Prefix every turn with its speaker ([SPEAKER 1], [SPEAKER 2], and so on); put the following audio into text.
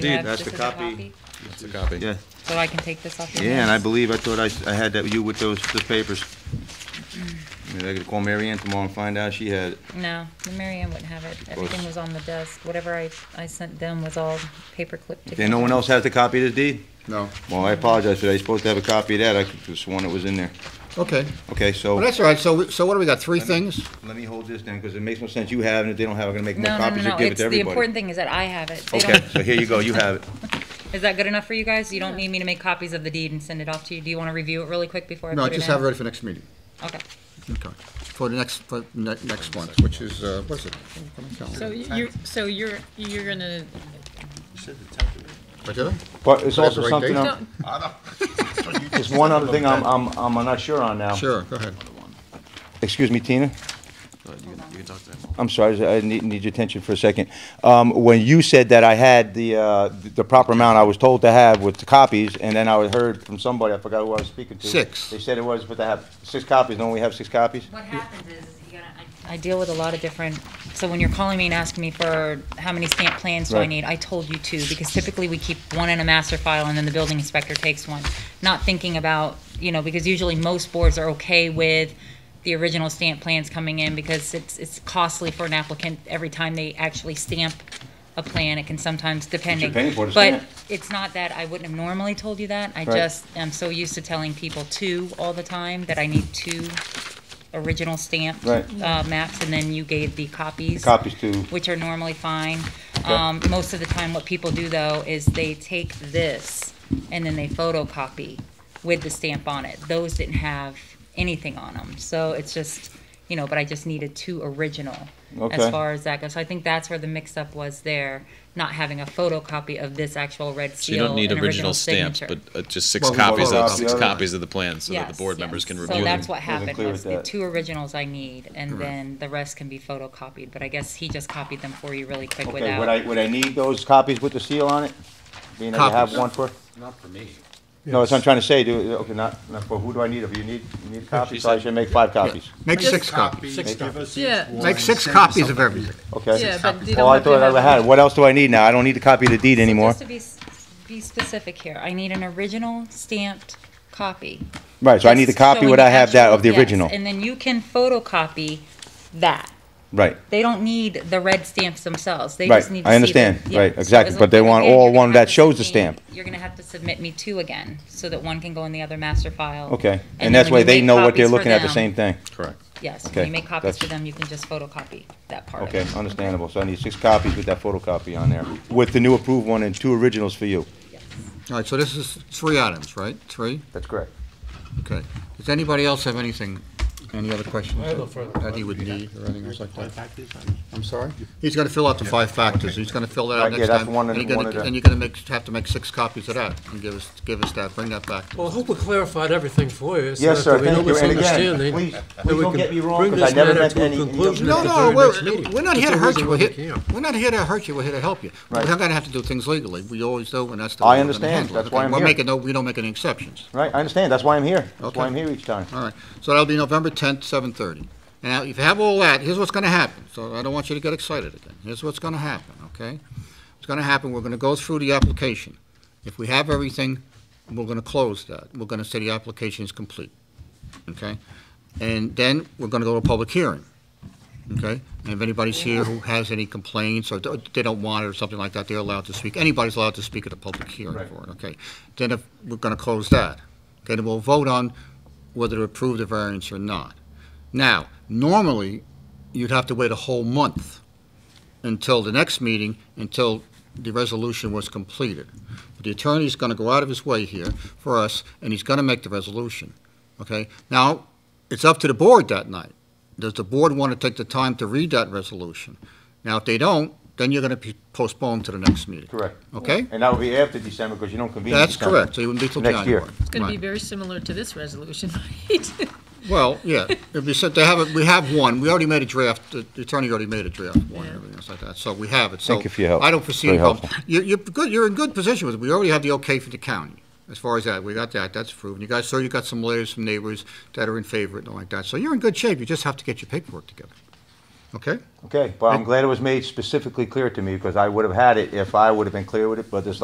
[SPEAKER 1] Indeed,
[SPEAKER 2] That's
[SPEAKER 1] that's the
[SPEAKER 2] just as a
[SPEAKER 1] copy.
[SPEAKER 3] That's a copy.
[SPEAKER 1] Yeah,
[SPEAKER 2] So I can take this off your
[SPEAKER 1] yeah, and I
[SPEAKER 2] hands?
[SPEAKER 1] believe, I thought I, I had that, you with those, those papers. Maybe I could call Mary Ann tomorrow and find out she had it.
[SPEAKER 2] No, Mary Ann wouldn't have it. Everything was on the desk. Whatever I, I sent them was all paper clipped together.
[SPEAKER 1] Okay, no one else has the copy of the deed?
[SPEAKER 4] No.
[SPEAKER 1] Well, I apologize for that, you're supposed to have a copy of that, I could have sworn it was in there.
[SPEAKER 4] Okay.
[SPEAKER 1] Okay, so.
[SPEAKER 4] Well, that's all right. So, we- so what do we got? Three things?
[SPEAKER 1] Let me hold this then, because it makes no sense you have it, if they don't have it, I'm gonna make more
[SPEAKER 2] No, no, no,
[SPEAKER 1] copies
[SPEAKER 2] no.
[SPEAKER 1] or give it
[SPEAKER 2] It's,
[SPEAKER 1] to
[SPEAKER 2] the important
[SPEAKER 1] everybody.
[SPEAKER 2] thing is that I have it. They
[SPEAKER 1] Okay,
[SPEAKER 2] don't-
[SPEAKER 1] so here you go, you have it.
[SPEAKER 2] Is that good enough for you guys? You don't need me to make copies of the deed and send it off to you? Do you want to review it really quick before I
[SPEAKER 4] No,
[SPEAKER 2] put it in?
[SPEAKER 4] just have it ready for next meeting.
[SPEAKER 2] Okay.
[SPEAKER 4] Okay. For the next, for ne- next one, which is, uh, what is it?
[SPEAKER 5] So you're, so you're, you're gonna,
[SPEAKER 4] What did
[SPEAKER 1] But
[SPEAKER 4] I?
[SPEAKER 1] it's
[SPEAKER 4] But that's
[SPEAKER 1] also
[SPEAKER 4] the right
[SPEAKER 1] something,
[SPEAKER 4] date.
[SPEAKER 1] I'm-
[SPEAKER 5] don't,
[SPEAKER 1] it's one other thing I'm, I'm, I'm not sure on now.
[SPEAKER 4] Sure, go ahead.
[SPEAKER 1] Excuse me, Tina?
[SPEAKER 3] You can, you can talk to them.
[SPEAKER 1] I'm sorry, I need, need your attention for a second. Um, when you said that I had the, uh, the proper amount I was told to have with the copies, and then I heard from somebody, I forgot who I was speaking to.
[SPEAKER 4] Six.
[SPEAKER 1] They said it was, but I have six copies, don't we have six copies?
[SPEAKER 2] What happens is, you gotta, I. I deal with a lot of different, so when you're calling me and asking me for how many stamp plans do I
[SPEAKER 1] Right.
[SPEAKER 2] need, I told you two, because typically we keep one in a master file and then the building inspector takes one. Not thinking about, you know, because usually most boards are okay with the original stamp plans coming in, because it's, it's costly for an applicant every time they actually stamp a plan, it can sometimes, depending.
[SPEAKER 1] paying for the stamp.
[SPEAKER 2] But it's not that I wouldn't have normally told you that, I
[SPEAKER 1] Right.
[SPEAKER 2] just am so used to telling people two all the time, that I need two original stamped
[SPEAKER 1] Right.
[SPEAKER 2] uh, maps, and then you gave the copies.
[SPEAKER 1] Copies to,
[SPEAKER 2] Which are normally fine. Um, Most of the time, what people do, though, is they take this, and then they photocopy with the stamp on it. Those didn't have anything on them, so it's just, you know, but I just needed two original, as
[SPEAKER 1] Okay.
[SPEAKER 2] far as that goes. So I think that's where the mix-up was there, not having a photocopy of this actual red
[SPEAKER 3] So you
[SPEAKER 2] seal
[SPEAKER 3] don't need
[SPEAKER 2] and
[SPEAKER 3] original
[SPEAKER 2] original
[SPEAKER 3] stamps,
[SPEAKER 2] signature.
[SPEAKER 3] but uh, just six
[SPEAKER 4] Well, we
[SPEAKER 3] copies
[SPEAKER 1] photocopy
[SPEAKER 3] of, six
[SPEAKER 1] the other
[SPEAKER 3] copies of the plan, so that the
[SPEAKER 2] Yes,
[SPEAKER 3] board
[SPEAKER 2] yes.
[SPEAKER 3] members can review them.
[SPEAKER 2] So that's what
[SPEAKER 1] Wasn't
[SPEAKER 2] happened,
[SPEAKER 1] clear
[SPEAKER 2] was
[SPEAKER 1] with
[SPEAKER 2] the
[SPEAKER 1] that.
[SPEAKER 2] two originals I need, and then the rest can be photocopied, but I guess he just copied them for you really quick
[SPEAKER 1] okay, would I,
[SPEAKER 2] without.
[SPEAKER 1] would I need those copies with the seal on it? Being that you have
[SPEAKER 4] Copies.
[SPEAKER 1] one for,
[SPEAKER 6] Not for me.
[SPEAKER 1] no, that's what I'm trying to say, do, okay, not, not, for who do I need, if you need, you need copies, so I
[SPEAKER 3] said-
[SPEAKER 1] should make five copies,
[SPEAKER 4] Make six copies.
[SPEAKER 6] Six copies.
[SPEAKER 5] yeah,
[SPEAKER 4] Make six copies of everything.
[SPEAKER 1] okay?
[SPEAKER 5] yeah, but you
[SPEAKER 1] Oh, I
[SPEAKER 5] don't
[SPEAKER 1] thought
[SPEAKER 5] have to
[SPEAKER 1] I had,
[SPEAKER 5] have.
[SPEAKER 1] it. what else do I need now? I don't need to copy the deed anymore.
[SPEAKER 2] Just to be, s- be specific here, I need an original stamped copy.
[SPEAKER 1] Right, so I need to
[SPEAKER 2] Just
[SPEAKER 1] copy
[SPEAKER 2] showing
[SPEAKER 1] what
[SPEAKER 2] the
[SPEAKER 1] I have that
[SPEAKER 2] actual-
[SPEAKER 1] of the
[SPEAKER 2] yes,
[SPEAKER 1] original,
[SPEAKER 2] And then you can photocopy that.
[SPEAKER 1] right.
[SPEAKER 2] They don't need the red stamps themselves, they
[SPEAKER 1] Right,
[SPEAKER 2] just need to
[SPEAKER 1] I
[SPEAKER 2] see the-
[SPEAKER 1] understand.
[SPEAKER 2] yeah.
[SPEAKER 1] Right,
[SPEAKER 2] So
[SPEAKER 1] exactly,
[SPEAKER 2] as
[SPEAKER 1] but they
[SPEAKER 2] long-
[SPEAKER 1] want
[SPEAKER 2] again,
[SPEAKER 1] all
[SPEAKER 2] you're gonna
[SPEAKER 1] one
[SPEAKER 2] have
[SPEAKER 1] that
[SPEAKER 2] to
[SPEAKER 1] shows the
[SPEAKER 2] submit-
[SPEAKER 1] stamp.
[SPEAKER 2] You're gonna have to submit me two again, so that one can go in the other master file.
[SPEAKER 1] Okay,
[SPEAKER 2] then
[SPEAKER 1] and that's
[SPEAKER 2] when
[SPEAKER 1] why
[SPEAKER 2] you
[SPEAKER 1] they
[SPEAKER 2] make
[SPEAKER 1] know what they're
[SPEAKER 2] copies for
[SPEAKER 1] looking at, the
[SPEAKER 2] them-
[SPEAKER 1] same thing.
[SPEAKER 3] Correct.
[SPEAKER 2] Yes, when
[SPEAKER 1] Okay,
[SPEAKER 2] you make copies for
[SPEAKER 1] that's-
[SPEAKER 2] them, you can just photocopy that part of
[SPEAKER 1] Okay,
[SPEAKER 2] it.
[SPEAKER 1] understandable, so I need six copies with that photocopy on there, with the new approved one and two originals for you.
[SPEAKER 4] All right, so this is three items, right? Three?
[SPEAKER 1] That's correct.
[SPEAKER 4] Okay. Does anybody else have anything, any other questions that he would need or anything else like that? I'm sorry? He's gonna fill out the five factors. He's gonna fill that
[SPEAKER 1] Right,
[SPEAKER 4] out
[SPEAKER 1] yeah,
[SPEAKER 4] next time.
[SPEAKER 1] that's one and
[SPEAKER 4] you're gonna-
[SPEAKER 1] one of the-
[SPEAKER 4] And you're gonna make, have to make six copies of that and give us, give us that, bring that back.
[SPEAKER 6] Well, I hope we clarified everything for you. so
[SPEAKER 1] Yes,
[SPEAKER 6] that there
[SPEAKER 1] sir,
[SPEAKER 6] be no
[SPEAKER 1] thank you, and again,
[SPEAKER 6] misunderstanding,
[SPEAKER 1] please,
[SPEAKER 6] that
[SPEAKER 1] please
[SPEAKER 6] we
[SPEAKER 1] don't
[SPEAKER 6] can
[SPEAKER 1] get me wrong,
[SPEAKER 6] bring
[SPEAKER 1] because I
[SPEAKER 6] this
[SPEAKER 1] never
[SPEAKER 6] matter
[SPEAKER 1] meant
[SPEAKER 6] to a
[SPEAKER 1] any.
[SPEAKER 6] conclusion.
[SPEAKER 4] No,
[SPEAKER 6] at the
[SPEAKER 4] no,
[SPEAKER 6] very next
[SPEAKER 4] we're,
[SPEAKER 6] meeting.
[SPEAKER 4] we're not here to hurt
[SPEAKER 6] That's the
[SPEAKER 4] you.
[SPEAKER 6] reason
[SPEAKER 4] We're
[SPEAKER 6] why we
[SPEAKER 4] here,
[SPEAKER 6] came.
[SPEAKER 4] we're not here to hurt you. We're here to help you. We're
[SPEAKER 1] Right.
[SPEAKER 4] not gonna have to do things legally. We always do, and that's the
[SPEAKER 1] I
[SPEAKER 4] way we're gonna
[SPEAKER 1] understand.
[SPEAKER 4] handle it.
[SPEAKER 1] That's why
[SPEAKER 4] Okay,
[SPEAKER 1] I'm
[SPEAKER 4] We're
[SPEAKER 1] here.
[SPEAKER 4] making no, we don't make any exceptions.
[SPEAKER 1] Right, I understand, that's why I'm here, that's why
[SPEAKER 4] Okay.
[SPEAKER 1] I'm here each time.
[SPEAKER 4] All right, so that'll be November 10th, 7:30. Now, if you have all that, here's what's going to happen, so I don't want you to get excited again. Here's what's going to happen, okay? What's going to happen, we're going to go through the application. If we have everything, we're going to close that. We're going to say the application is complete, okay? And then we're going to go to a public hearing, okay? And if anybody's here who has any complaints or do- they don't want it or something like that, they're allowed to speak. Anybody's allowed to speak at a public hearing
[SPEAKER 1] Right.
[SPEAKER 4] for it, okay? Then if, we're going to close that, okay? Then we'll vote on whether to approve the variance or not. Now, normally, you'd have to wait a whole month until the next meeting, until the resolution was completed. But The attorney's gonna go out of his way here for us, and he's gonna make the resolution, okay? Now, it's up to the board that night. Does the board wanna take the time to read that resolution? Now, if they don't, then you're gonna be postponed to the next meeting.
[SPEAKER 1] Correct.
[SPEAKER 4] Okay?
[SPEAKER 1] And that will be after December, because you don't convene. in
[SPEAKER 4] That's
[SPEAKER 1] December.
[SPEAKER 4] correct, so you wouldn't be till
[SPEAKER 1] Next year.
[SPEAKER 4] January.
[SPEAKER 5] It's gonna be
[SPEAKER 4] Right.
[SPEAKER 5] very similar to this resolution, right?
[SPEAKER 4] Well, yeah, if you said, they have, a- we have one, we already made a draft, the the attorney already made a draft one, and everything else like that, so we have it, so.
[SPEAKER 1] Thank you for your help.
[SPEAKER 4] I don't foresee
[SPEAKER 1] Very
[SPEAKER 4] any problem. You're, you're good, you're in good position with it, we already have the okay from the county, as far as that, we got that, that's proven. You guys, so you got some letters from neighbors that are in favor and all like that, so you're in good shape, you just have to get your paperwork together. okay?
[SPEAKER 1] Okay, well, I'm glad it was made specifically clear to me, because I would have had it if I would have been clear with it, but it's